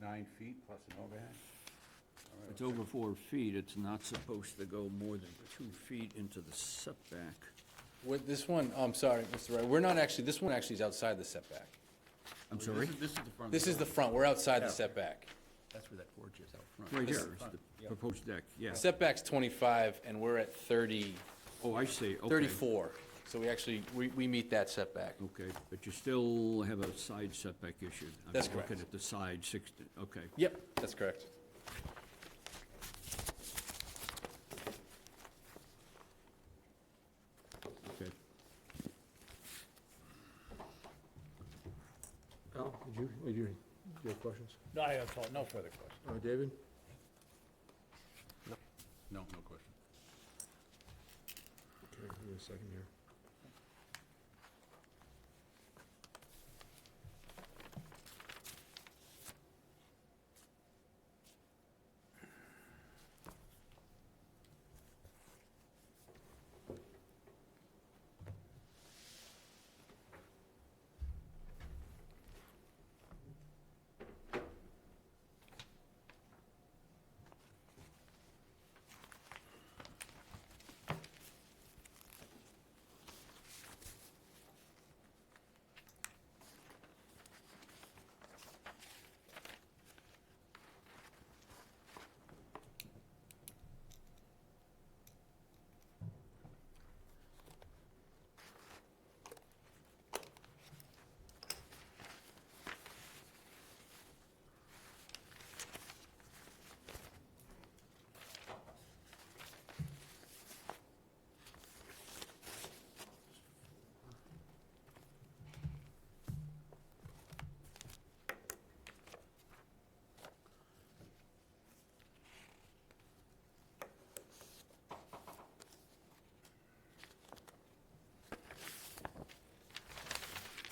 nine feet plus an overhang? All right, It's over four feet, it's not supposed to go more than two feet into the setback. With this one, oh, I'm sorry, Mr. Wright, we're not actually, this one actually is outside the setback. I'm sorry? Oh, This is the front. This is the front, we're outside the setback. That's where that porch is out front. Right here, it's the proposed deck, yeah. Setback's 25, and we're at 30, Oh, I see, okay. 34. So we actually, we, we meet that setback. Okay, but you still have a side setback issue. I'm That's Looking correct. at the side sixty, okay. Yep, that's correct. Okay. Al, did you, did you, do you have questions? No, I have no further questions. Uh, David? No, no question. Okay, give me a second here.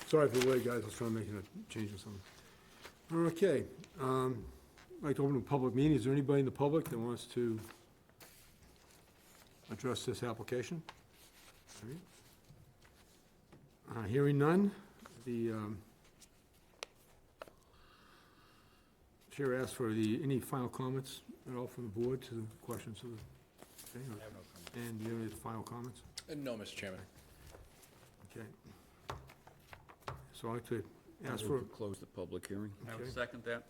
Sorry for the wait, guys, I was trying to make a change or something. Okay, um, I'd like to open a public meeting, is there anybody in the public that wants to address this application? All right. Uh, hearing none, the, um, Chair asks for the, any final comments at all from the board to the questions of the, okay, or- and do you have any final comments? Uh, No, Mr. Chairman. Okay. So I'd like to ask I for, move to Close the public hearing. I Okay. would second that.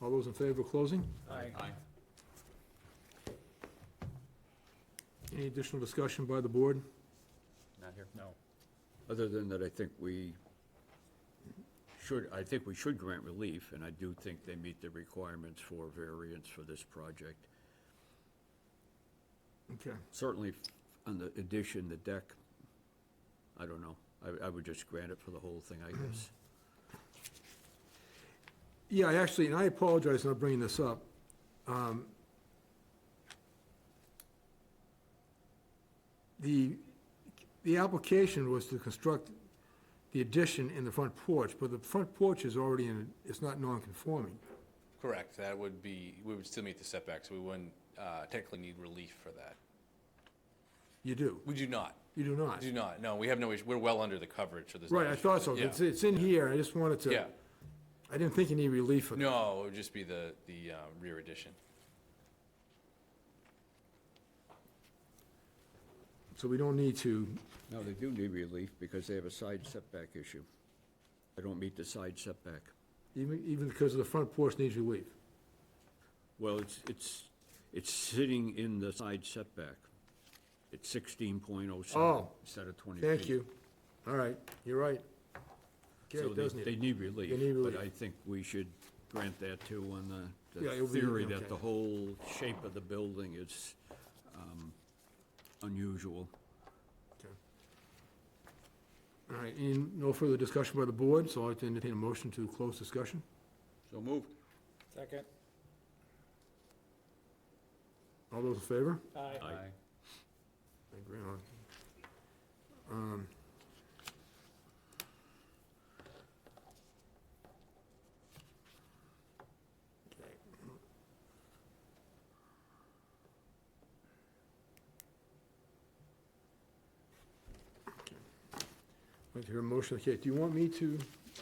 all those in favor of closing? Aye. Aye. Any additional discussion by the board? Not here. No. Other than that, I think we should, I think we should grant relief, and I do think they meet the requirements for variance for this project. Okay, Certainly on the addition, the deck, I don't know. I, I would just grant it for the whole thing, I guess. yeah, I actually, and I apologize for not bringing this up. Um, The, the application was to construct the addition in the front porch, but the front porch is already in, it's not non-conforming. Correct, that would be, we would still meet the setbacks, we wouldn't uh, technically need relief for that. You do, We do not, you do not. do not, no, we have no issue, we're well under the coverage, so there's no Right, I issue. thought so, Yeah. it's, uh, it's in here, I just wanted to. Yeah, I didn't think you need relief for that. no, it would just be the, the uh, rear addition. So we don't need to, No, they do need relief because they have a side setback issue. They don't meet the side setback. even, even because of the front porch needs relief. Well, it's, it's, it's sitting in the side setback. It's sixteen point oh seven Oh, instead of twenty feet. Thank you. All right, you're right. Okay, So it does they, they need, need relief. They need But I relief. think we should grant that too on the, Yeah, the it'll be- theory that okay. the whole shape of the building is, um, unusual. okay. All right, and no further discussion by the board, so I'd like to entertain a motion to close discussion. So moved. Second. All those in favor? Aye. Aye. I agree on. Um, okay. Okay. I'd Like to hear a motion, okay, do you want me to